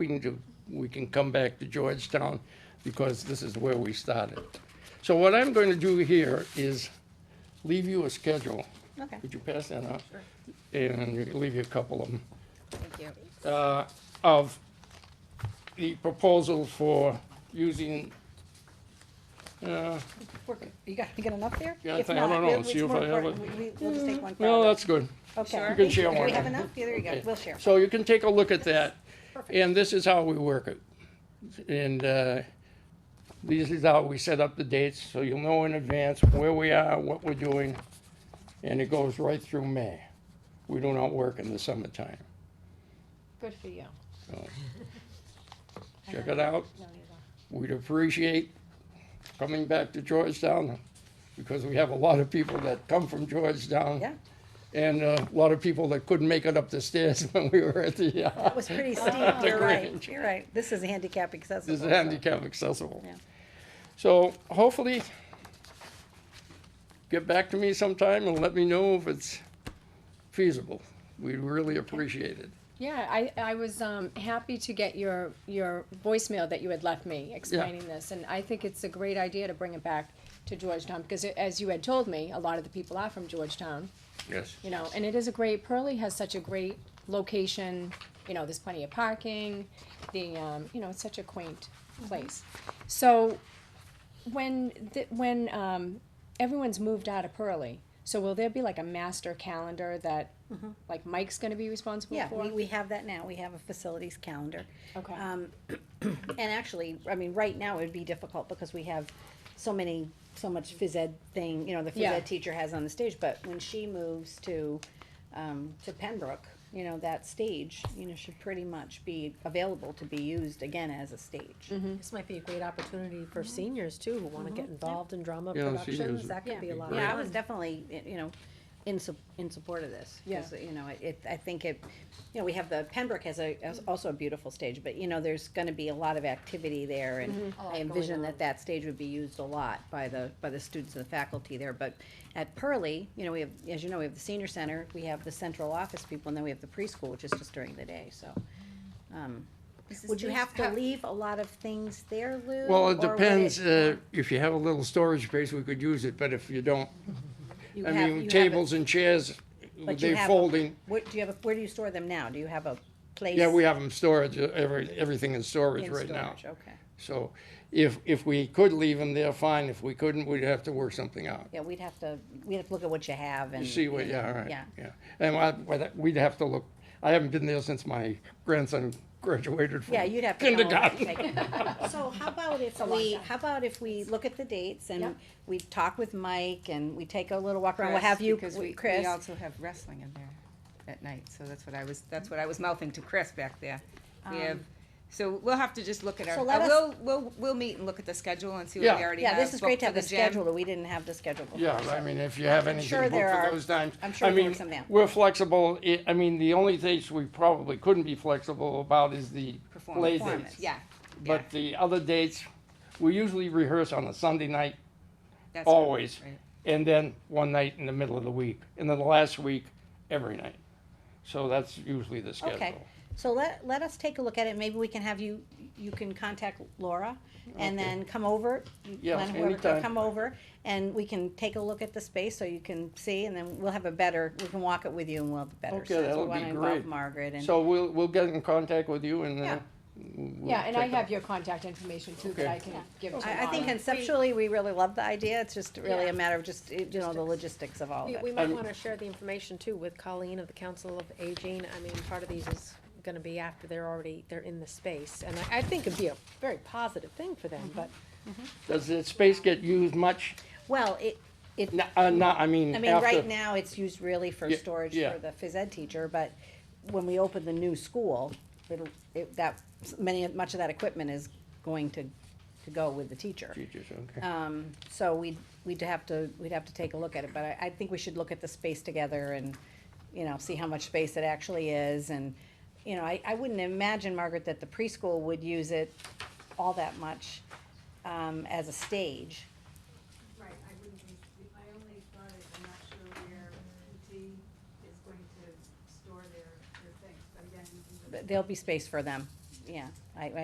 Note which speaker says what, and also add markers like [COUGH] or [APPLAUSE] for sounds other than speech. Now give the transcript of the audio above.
Speaker 1: we can do, we can come back to Georgetown because this is where we started. So what I'm going to do here is leave you a schedule.
Speaker 2: Okay.
Speaker 1: Would you pass that out? And you can leave you a couple of them
Speaker 2: Thank you.
Speaker 1: uh, of the proposal for using, uh,
Speaker 2: We're good. You got, you got enough there?
Speaker 1: Yeah, I
Speaker 2: If
Speaker 1: think- I
Speaker 2: not,
Speaker 1: don't know.
Speaker 2: we'll-
Speaker 1: See
Speaker 2: it's
Speaker 1: if
Speaker 2: more
Speaker 1: I have
Speaker 2: important.
Speaker 1: it.
Speaker 2: We- we- We'll just take one. for
Speaker 1: no,
Speaker 2: all of
Speaker 1: that's good.
Speaker 2: it. Okay.
Speaker 1: You can share
Speaker 2: Do
Speaker 1: one.
Speaker 2: we have enough? Yeah, there you go.
Speaker 1: Okay. [LAUGHS]
Speaker 2: We'll share.
Speaker 1: So you can take a look at that,
Speaker 2: Perfect.
Speaker 1: and this is how we work it. And uh, this is how we set up the dates, so you'll know in advance where we are, what we're doing, and it goes right through May. We do not work in the summertime,
Speaker 3: Good for you.
Speaker 1: so. Check it out.
Speaker 3: No, you don't.
Speaker 1: We'd appreciate coming back to Georgetown, because we have a lot of people that come from Georgetown.
Speaker 2: Yeah.
Speaker 1: And uh, a lot of people that couldn't make it up the stairs [LAUGHS] when we were at the, uh,
Speaker 2: That
Speaker 1: [LAUGHS]
Speaker 2: was pretty steep.
Speaker 1: the
Speaker 2: You're right.
Speaker 1: Grange.
Speaker 2: You're right. This is handicap accessible.
Speaker 1: is
Speaker 2: so-
Speaker 1: handicap accessible.
Speaker 2: Yeah.
Speaker 1: So hopefully, get back to me sometime and let me know if it's feasible. We'd really appreciate it.
Speaker 3: Yeah, I, I was, um, happy to get your, your voicemail that you had left me explaining this, and I think it's a great idea to bring it back to Georgetown, because it- as you had told me, a lot of the people are from Georgetown,
Speaker 1: Yes.
Speaker 3: you know, and it is a great, Pearlie has such a great location, you know, there's plenty of parking, the, um, you know, it's such a quaint
Speaker 2: Mm-hmm.
Speaker 3: place. So, when, th- when, um, everyone's moved out of Pearlie, so will there be like a master calendar that, like Mike's gonna be responsible
Speaker 2: Mm-hmm. Yeah,
Speaker 3: for?
Speaker 2: we, we have that now. We have a facilities calendar.
Speaker 3: Okay.
Speaker 2: Um, [CLEARS THROAT] and actually, I mean, right now it would be difficult because we have so many, so much phys ed thing, you know, the phys
Speaker 3: Yeah.
Speaker 2: ed teacher has on the stage, but when she moves to, um, to Pembroke, you know, that stage, you know, should pretty much be available to be used again as a stage.
Speaker 4: This might be a great opportunity for seniors too, who wanna get involved in drama
Speaker 1: Yeah, seniors
Speaker 4: productions,
Speaker 1: would
Speaker 4: that
Speaker 2: Yeah.
Speaker 4: could be a lot of fun.
Speaker 2: Yeah, I was definitely, y- you know, in su- in support of this, because, you know, it- it, I think it, you know, we have the, Pembroke has a, has also a beautiful stage, but, you know, there's gonna be a lot of activity there, and
Speaker 4: Mm-hmm.
Speaker 2: I envision that that stage would be used a lot by the, by the students and the faculty there, but at Pearlie, you know, we have, as you know, we have the senior center, we have the central office people, and then we have the preschool, which is just during the day, so. um, Would you have to leave a lot of things there, Lou?
Speaker 1: Well,
Speaker 2: or
Speaker 1: it
Speaker 2: would
Speaker 1: depends, uh, if you have a little storage space, we could use it, but if you don't,
Speaker 2: you
Speaker 1: I
Speaker 2: have- you
Speaker 1: mean,
Speaker 2: have it-
Speaker 1: tables and chairs,
Speaker 2: But you
Speaker 1: they're
Speaker 2: have a-
Speaker 1: folding.
Speaker 2: What, do you have, a- where do you store them now? Do you have a place?
Speaker 1: Yeah, we have them storage, uh, every, everything in storage
Speaker 2: in
Speaker 1: right now.
Speaker 2: storage? Okay.
Speaker 1: So if, if we could leave them there, fine. If we couldn't, we'd have to work something out.
Speaker 2: Yeah, we'd have to, we'd have to look at what you have and.
Speaker 1: You see what, yeah, all right.
Speaker 2: Yeah.
Speaker 1: Yeah. And I, whether- we'd have to look, I haven't been there since my grandson graduated from
Speaker 2: Yeah, you'd have to. come over and
Speaker 1: kindergarten.
Speaker 2: take it. [LAUGHS] So how about if we, how about if we look at the dates and
Speaker 3: Yep.
Speaker 2: we talk with Mike and we take a little walk around, we'll have you,
Speaker 5: Because we, we
Speaker 2: Chris.
Speaker 5: also have wrestling in there at night, so that's what I was, that's what I was mouthing to Chris back there. We have, so we'll have to just look at our,
Speaker 2: Um, so let
Speaker 5: uh,
Speaker 2: us-
Speaker 5: we'll, we'll, we'll meet and look at the schedule and see
Speaker 1: Yeah.
Speaker 5: what we already have.
Speaker 2: Yeah, this is great to have the
Speaker 5: booked for
Speaker 2: schedule
Speaker 5: gym.
Speaker 2: that we didn't have the schedule before.
Speaker 1: Yeah, I mean, if you have anything
Speaker 2: sure
Speaker 1: booked
Speaker 2: there
Speaker 1: for
Speaker 2: are-
Speaker 1: those times.
Speaker 2: I'm sure
Speaker 1: I
Speaker 2: we can
Speaker 1: mean,
Speaker 2: work something out.
Speaker 1: We're flexible. I- I mean, the only dates we probably couldn't be flexible about is the play
Speaker 5: Performance,
Speaker 1: dates.
Speaker 5: yeah.
Speaker 1: But the other dates, we usually rehearse on a Sunday night
Speaker 5: that's what-
Speaker 1: always,
Speaker 5: right.
Speaker 1: and then one night in the middle of the week, and then the last week, every night. So that's usually the schedule.
Speaker 2: Okay, so let, let us take a look at it, maybe we can have you, you can contact Laura, and then come over, you-
Speaker 1: Yeah,
Speaker 2: Glenn, whoever,
Speaker 1: anytime.
Speaker 2: come over, and we can take a look at the space, so you can see, and then we'll have a better, we can walk it with you and we'll have a better
Speaker 1: Okay,
Speaker 2: sense. We
Speaker 1: that'll be
Speaker 2: wanna involve
Speaker 1: great.
Speaker 2: Margaret and,
Speaker 1: So we'll, we'll get in contact with you and, uh.
Speaker 2: Yeah.
Speaker 1: we'll
Speaker 3: Yeah, and I
Speaker 1: check it
Speaker 3: have your contact information too, that
Speaker 1: Okay.
Speaker 3: I can give to
Speaker 2: I, I think
Speaker 3: Laura.
Speaker 2: conceptually, we really love the idea, it's just really
Speaker 4: Yeah.
Speaker 2: a matter of just, you know, the logistics of all of
Speaker 4: We, we
Speaker 2: it.
Speaker 4: might
Speaker 1: And-
Speaker 4: wanna share the information too with Colleen of the Council of Aging, I mean, part of these is gonna be after they're already, they're in the space, and I, I think it'd be a very positive thing for them, but
Speaker 1: Does the space get used much?
Speaker 2: Well, it, it,
Speaker 1: No, uh, no, I mean,
Speaker 2: I
Speaker 1: after.
Speaker 2: mean, right now, it's used really for
Speaker 1: Yeah,
Speaker 2: storage
Speaker 1: yeah.
Speaker 2: for the phys ed teacher, but when we open the new school, it'll, it, that, many, much of that equipment is going to, to go with the teacher.
Speaker 1: Teachers, okay.
Speaker 2: Um, so we'd, we'd have to, we'd have to take a look at it, but I, I think we should look at the space together and, you know, see how much space it actually is, and, you know, I, I wouldn't imagine, Margaret, that the preschool would use it all that much, um, as a stage.
Speaker 6: Right, I wouldn't, think- I only thought it, I'm not sure where PT is going to store their, their things, but again, you can just-
Speaker 2: There'll be space for them, yeah, I, I